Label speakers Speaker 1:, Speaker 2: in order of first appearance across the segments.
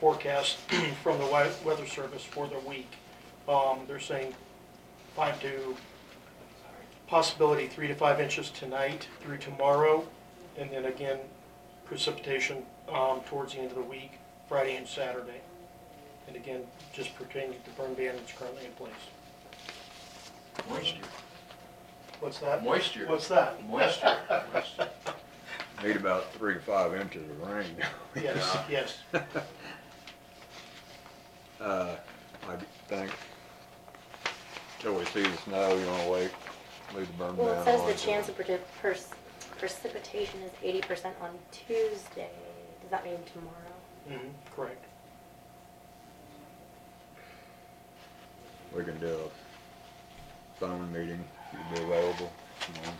Speaker 1: forecast from the wea- weather service for the week. Um, They're saying five to, possibility three to five inches tonight through tomorrow, and then again precipitation um, towards the end of the week, Friday and Saturday. And again, just pertaining to the burn ban that's currently in place.
Speaker 2: Moisture,
Speaker 1: What's that?
Speaker 2: Moisture.
Speaker 1: What's that?
Speaker 2: moisture, moisture.
Speaker 3: Need about three to five inches of rain.
Speaker 1: Yes, yes.
Speaker 3: Uh, I think, till we see the snow, you wanna wait, leave the burn down.
Speaker 4: Well, it says the
Speaker 3: like that.
Speaker 4: chance of predi- pers- precipitation is eighty percent on Tuesday. Does that mean tomorrow?
Speaker 1: Mhm, Correct.
Speaker 3: We can do a phone meeting, you'd be available, you know.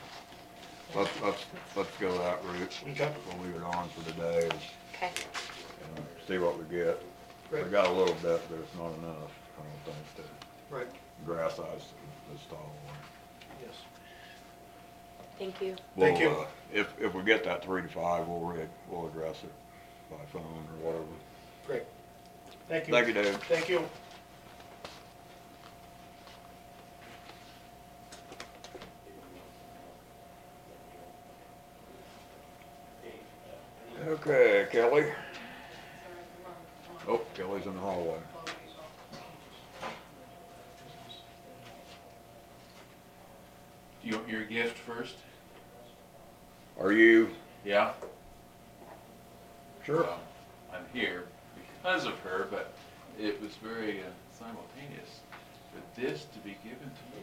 Speaker 3: Let's, let's, let's go that route.
Speaker 1: Okay.
Speaker 3: We'll leave it on for today and,
Speaker 4: Okay,
Speaker 3: and see what we get. We
Speaker 1: Right.
Speaker 3: got a little bit, but it's not enough, I don't think, to
Speaker 1: Right,
Speaker 3: grass ice this tall.
Speaker 1: yes.
Speaker 4: thank you.
Speaker 1: Thank
Speaker 3: We'll,
Speaker 1: you.
Speaker 3: uh, If, if we get that three to five, we'll re, we'll address it by phone or whatever.
Speaker 1: Great. Thank you.
Speaker 3: Thank you, Dave.
Speaker 1: Thank you.
Speaker 3: Okay, Kelly. Oh, Kelly's in the hallway.
Speaker 2: Do you want your gift first?
Speaker 3: Are you?
Speaker 2: Yeah?
Speaker 3: Sure.
Speaker 2: Well, I'm here because of her, but it was very uh, simultaneous for this to be given to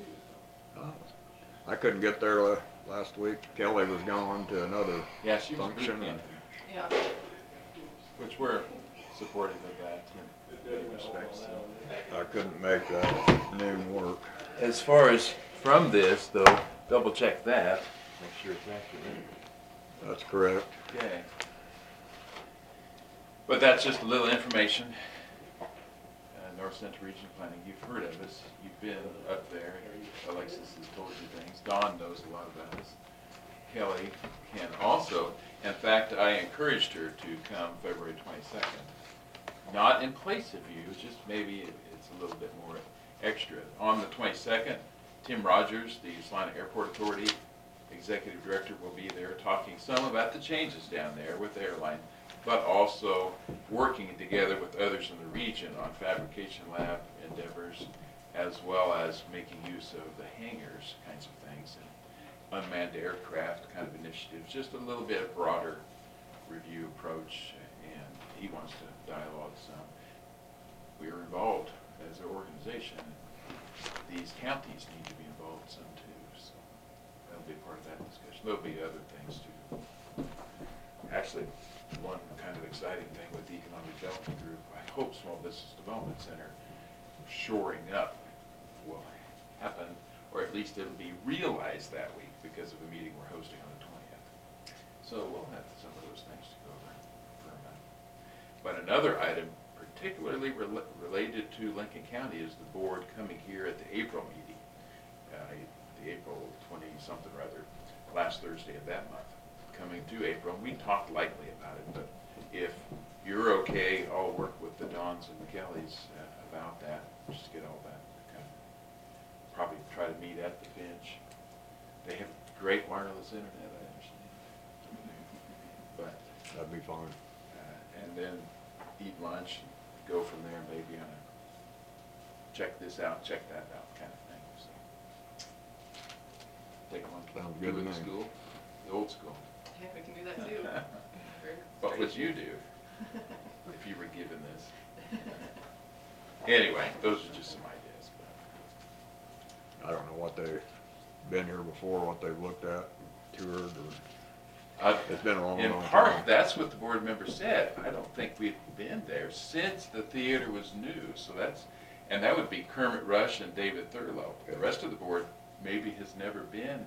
Speaker 2: you.
Speaker 3: I couldn't get there la- last week. Kelly was gone to another
Speaker 2: Yeah, she was
Speaker 3: function.
Speaker 2: pretty,
Speaker 3: and-
Speaker 5: Yeah,
Speaker 2: which we're supportive of that in many respects. so.
Speaker 3: I couldn't make that noon work.
Speaker 2: As far as from this though, double check that, make sure it's accurate.
Speaker 3: That's correct.
Speaker 2: Okay. But that's just a little information. Uh, North Central Region Planning, you've heard of us, you've been up there, Alexis has told you things, Don knows a lot about us. Kelly can also, in fact, I encouraged her to come February twenty-second. Not in place of you, it's just maybe it- it's a little bit more extra. On the twenty-second, Tim Rogers, the Salina Airport Authority executive director will be there talking some about the changes down there with the airline, but also working together with others in the region on fabrication lab endeavors, as well as making use of the hangars kinds of things, and unmanned aircraft kind of initiatives, just a little bit broader review approach, and he wants to dialogue some. We are involved as an organization, and these counties need to be involved some too, so. That'll be part of that discussion. There'll be other things too. Actually, one kind of exciting thing with the Economic Development Group, I hope Small Business Development Center shoring up will happen, or at least it'll be realized that week because of a meeting we're hosting on the twentieth. So we'll have some of those things to go over for a minute. But another item particularly rela- related to Lincoln County is the board coming here at the April meeting uh, the April twenty-something or other, last Thursday of that month, coming to April. We talked lightly about it, but if you're okay, I'll work with the Dons and the Kellys uh, about that, just get all that, kind of, probably try to meet at the bench. They have great wireless internet, I understand. But
Speaker 3: That'd be fine.
Speaker 2: uh, and then eat lunch, and go from there, maybe on a check this out, check that out kind of thing, so. Take one,
Speaker 3: Sounds
Speaker 2: do
Speaker 3: good to
Speaker 2: it
Speaker 3: me.
Speaker 2: in school, the old school.
Speaker 5: yeah, we can do that too.
Speaker 2: What would you do if you were given this? Anyway, those are just some ideas, but
Speaker 3: I don't know what they've been here before, what they've looked at, toured, or,
Speaker 2: I've-
Speaker 3: it's been a long,
Speaker 2: In
Speaker 3: long
Speaker 2: part,
Speaker 3: time.
Speaker 2: that's what the board member said. I don't think we've been there since the theater was new, so that's, and that would be Kermit Rush and David Thurlow. The rest of the board maybe has never been,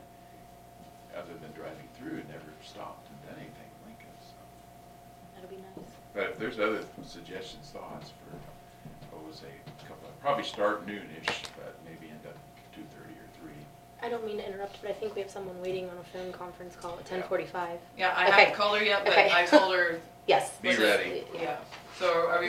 Speaker 2: other than driving through, never stopped and done anything in Lincoln, so.
Speaker 4: That'll be nice.
Speaker 2: But if there's other suggestions, thoughts for, what was a couple, probably start noonish, but maybe end up two-thirty or three.
Speaker 4: I don't mean to interrupt, but I think we have someone waiting on a phone conference call at ten forty-five.
Speaker 5: Yeah, I
Speaker 4: Okay.
Speaker 5: haven't called her yet, but
Speaker 4: Okay.
Speaker 5: I told her,
Speaker 4: Yes.
Speaker 2: Be
Speaker 4: let's-
Speaker 2: ready.
Speaker 5: yeah, so are we